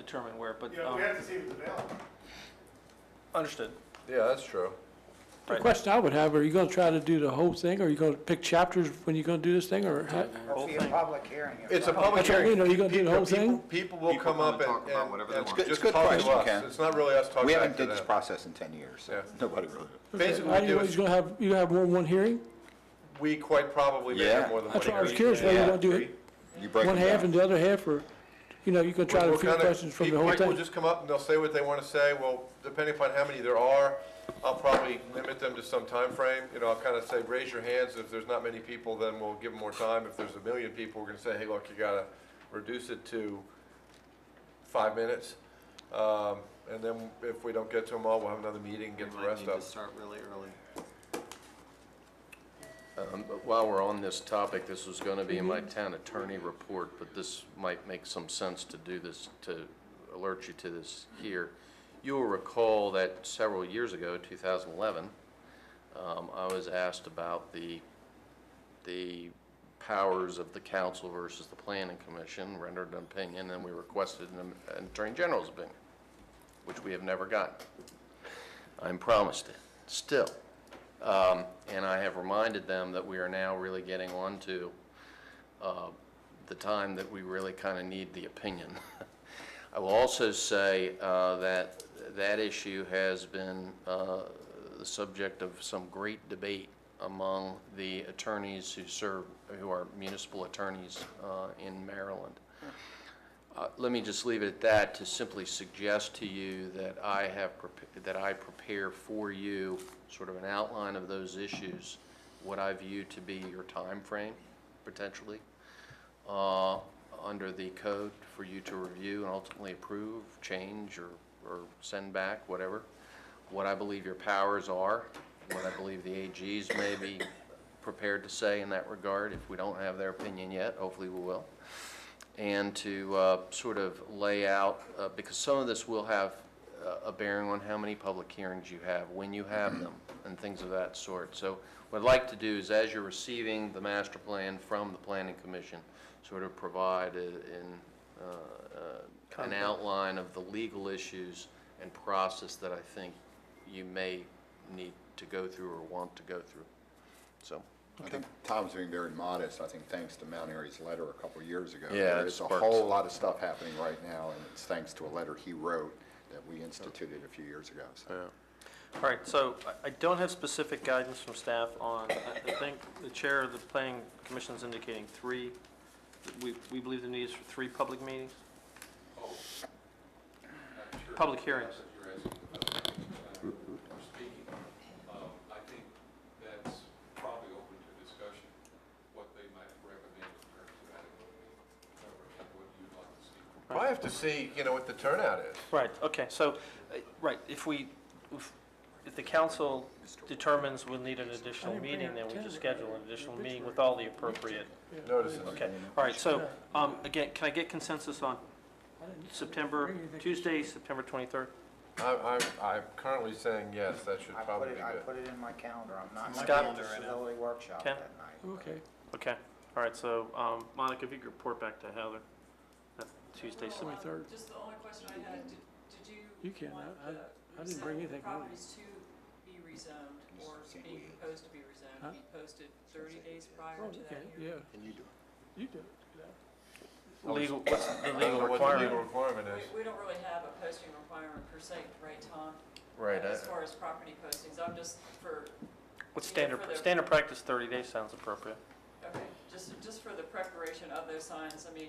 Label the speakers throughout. Speaker 1: determine where, but,
Speaker 2: You know,
Speaker 1: um,
Speaker 2: we have to see if it's available.
Speaker 1: understood.
Speaker 3: Yeah, that's true.
Speaker 4: The
Speaker 1: Right.
Speaker 4: question I would have, are you gonna try to do the whole thing, or are you gonna pick chapters when you're gonna do this thing, or? how-
Speaker 1: Whole
Speaker 5: It'll be a
Speaker 1: thing.
Speaker 5: public hearing. if
Speaker 3: It's a
Speaker 5: not-
Speaker 3: public
Speaker 4: That's what I
Speaker 3: hearing.
Speaker 4: mean, are you gonna do the whole
Speaker 3: People-
Speaker 4: thing?
Speaker 3: People will
Speaker 6: People
Speaker 3: come
Speaker 6: come
Speaker 3: up
Speaker 6: and
Speaker 3: and,
Speaker 6: talk about
Speaker 3: and-
Speaker 6: whatever they
Speaker 3: and
Speaker 6: want.
Speaker 3: just
Speaker 7: It's a good
Speaker 3: talk to
Speaker 7: question,
Speaker 3: us.
Speaker 7: Ken.
Speaker 3: It's not really us talking
Speaker 7: We
Speaker 3: back
Speaker 7: haven't
Speaker 3: to
Speaker 7: did this
Speaker 3: them.
Speaker 7: process in 10 years. so
Speaker 3: Yeah.
Speaker 7: Nobody really.
Speaker 3: Basically,
Speaker 4: How
Speaker 3: what we
Speaker 4: do you,
Speaker 3: do
Speaker 4: what, you're
Speaker 3: is,
Speaker 4: gonna have, you have more than one hearing?
Speaker 3: we quite probably may
Speaker 7: Yeah.
Speaker 3: have more than one
Speaker 4: That's why I was
Speaker 3: hearing.
Speaker 4: curious, whether
Speaker 7: Yeah.
Speaker 4: you're gonna do it
Speaker 7: You break
Speaker 4: one
Speaker 7: them
Speaker 4: half
Speaker 7: down.
Speaker 4: and the other half, or, you know, you're gonna try to
Speaker 3: We'll
Speaker 4: field
Speaker 3: kinda-
Speaker 4: questions from the
Speaker 3: people-
Speaker 4: whole
Speaker 3: People
Speaker 4: thing?
Speaker 3: just come up and they'll say what they want to say. Well, depending upon how many there are, I'll probably limit them to some time frame. You know, I'll kind of say, raise your hands. If there's not many people, then we'll give them more time. If there's a million people, we're going to say, hey, look, you got to reduce it to five minutes. Um, And then if we don't get to them all, we'll have another meeting, and get the rest
Speaker 6: Need to
Speaker 3: up.
Speaker 6: start really early.
Speaker 8: Um, but While we're on this topic, this was going to be in my town attorney report, but this might make some sense to do this, to alert you to this here. You will recall that several years ago, 2011, um, I was asked about the, the powers of the council versus the planning commission, rendered an opinion, and we requested an an attorney general's opinion, which we have never gotten. I'm promised it, still. Um, And I have reminded them that we are now really getting on to uh, the time that we really kind of need the opinion. I will also say uh, that that issue has been uh, the subject of some great debate among the attorneys who serve, who are municipal attorneys uh, in Maryland. Uh, Let me just leave it at that to simply suggest to you that I have, prep- that I prepare for you sort of an outline of those issues, what I view to be your time frame potentially, uh, under the code for you to review and ultimately approve, change, or, or send back, whatever. What I believe your powers are, what I believe the AGs may be prepared to say in that regard. If we don't have their opinion yet, hopefully we will and to uh, sort of lay out, uh, because some of this will have uh, a bearing on how many public hearings you have, when you have them, and things of that sort. So what I'd like to do is, as you're receiving the master plan from the planning commission, sort of provide a- in, uh, uh, an outline of the legal issues and process that I think you may need to go through or want to go through. So,
Speaker 7: I think Tom's being very modest, I think thanks to Mount Airy's letter a couple years ago.
Speaker 8: Yeah,
Speaker 7: There
Speaker 8: it
Speaker 7: is a
Speaker 8: sparked-
Speaker 7: whole lot of stuff happening right now, and it's thanks to a letter he wrote that we instituted a few years ago, so.
Speaker 1: All right, so I- I don't have specific guidance from staff on, I I think the chair of the planning commission is indicating three. We, we believe the need is for three public meetings? Public hearings.
Speaker 9: I'm speaking, um, I think that's probably open to discussion, what they might recommend in terms of adequate coverage and what you'd like to see.
Speaker 3: Well, I have to see, you know, what the turnout is.
Speaker 1: Right, okay, so, uh, right, if we, if- if the council determines we'll need an additional meeting, then we just schedule an additional meeting with all the appropriate
Speaker 3: Notices.
Speaker 1: Okay, all right, so, um, again, can I get consensus on September, Tuesday, September 23rd?
Speaker 3: I'm, I'm, I'm currently saying yes, that should
Speaker 5: I put
Speaker 3: probably
Speaker 5: it,
Speaker 3: be
Speaker 5: I
Speaker 3: good.
Speaker 5: put it in my calendar, I'm not
Speaker 1: Scott-
Speaker 5: going to the disability workshop
Speaker 1: Ken?
Speaker 5: that night. but-
Speaker 4: Okay.
Speaker 1: Okay, all right, so, um, Monica, if you could report back to Heather, that Tuesday, September.
Speaker 10: Well, um,
Speaker 4: 23rd.
Speaker 10: Just the only question I had, did, did you?
Speaker 4: You can,
Speaker 10: want
Speaker 4: I- I-
Speaker 10: the
Speaker 4: I didn't bring
Speaker 10: rezoned
Speaker 4: anything with me.
Speaker 10: Properties to be rezoned or
Speaker 7: Just see what
Speaker 10: being
Speaker 7: it is.
Speaker 10: proposed to be
Speaker 4: Huh?
Speaker 10: rezoned, be posted thirty days
Speaker 4: Oh,
Speaker 10: prior to
Speaker 4: okay,
Speaker 10: that
Speaker 4: yeah.
Speaker 10: hearing?
Speaker 7: And you do it.
Speaker 4: You do it.
Speaker 1: Legal, what's the
Speaker 3: I
Speaker 1: legal
Speaker 3: don't know what the legal
Speaker 1: requirement?
Speaker 3: requirement is.
Speaker 10: We, we don't really have a posting requirement per se, right, Tom?
Speaker 8: right, I-
Speaker 10: As far as property postings, I'm just for,
Speaker 1: What's
Speaker 10: Yeah,
Speaker 1: standard,
Speaker 10: for the-
Speaker 1: standard practice, 30 days sounds appropriate.
Speaker 10: okay, just, just for the preparation of those signs, I mean,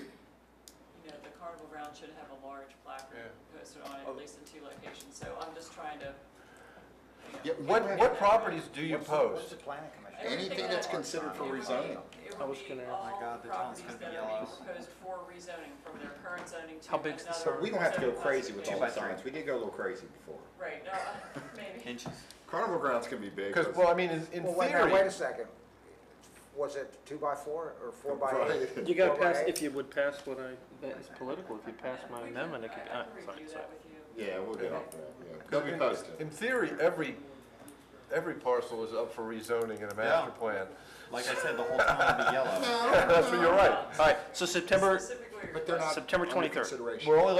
Speaker 10: you know, the carnival ground should have a large placard posted on
Speaker 4: Oh.
Speaker 10: it, at least in two locations, so I'm just trying to, you know,
Speaker 7: Yeah,
Speaker 3: What,
Speaker 7: what,
Speaker 3: what properties do you
Speaker 5: What's the- What's
Speaker 3: post?
Speaker 5: the planning commission?
Speaker 7: anything that's considered for
Speaker 10: It would be-
Speaker 7: rezoning.
Speaker 10: It
Speaker 1: I was
Speaker 10: would be
Speaker 1: gonna-
Speaker 10: all
Speaker 6: My God, the town's
Speaker 10: properties
Speaker 6: gonna be
Speaker 10: that are
Speaker 6: yellow.
Speaker 10: being proposed for rezoning from their current zoning to
Speaker 1: How
Speaker 10: another.
Speaker 1: big's the circle?
Speaker 7: We don't have to go
Speaker 10: zoning
Speaker 7: crazy with all
Speaker 10: classification.
Speaker 7: the signs, we did go a little crazy before.
Speaker 10: Right, no, uh, maybe.
Speaker 6: Inches.
Speaker 7: Carnival grounds can be big.
Speaker 3: Because, well, I mean, in in
Speaker 5: Well, wait, now, wait a
Speaker 3: theory,
Speaker 5: second, was it two by four or four by eight?
Speaker 7: Right.
Speaker 1: You gotta
Speaker 5: Four by
Speaker 1: pass,
Speaker 5: eight?
Speaker 1: if you would pass what I, that is political, if you pass my
Speaker 10: We can-
Speaker 1: amendment, it could,
Speaker 10: I- I
Speaker 1: ah,
Speaker 10: can
Speaker 1: sorry,
Speaker 10: review
Speaker 1: sorry.
Speaker 10: that with you.
Speaker 7: Yeah, we'll get off that, yeah. They'll be posted.
Speaker 3: in theory, every, every parcel is up for rezoning in a master plan.
Speaker 6: Like I said, the whole town will be yellow.
Speaker 3: That's what you're right. All right,
Speaker 1: So September,
Speaker 10: Um, Specifically
Speaker 11: where you're.
Speaker 7: But they're not
Speaker 12: September
Speaker 7: under
Speaker 12: 23rd.
Speaker 7: consideration.
Speaker 1: We're only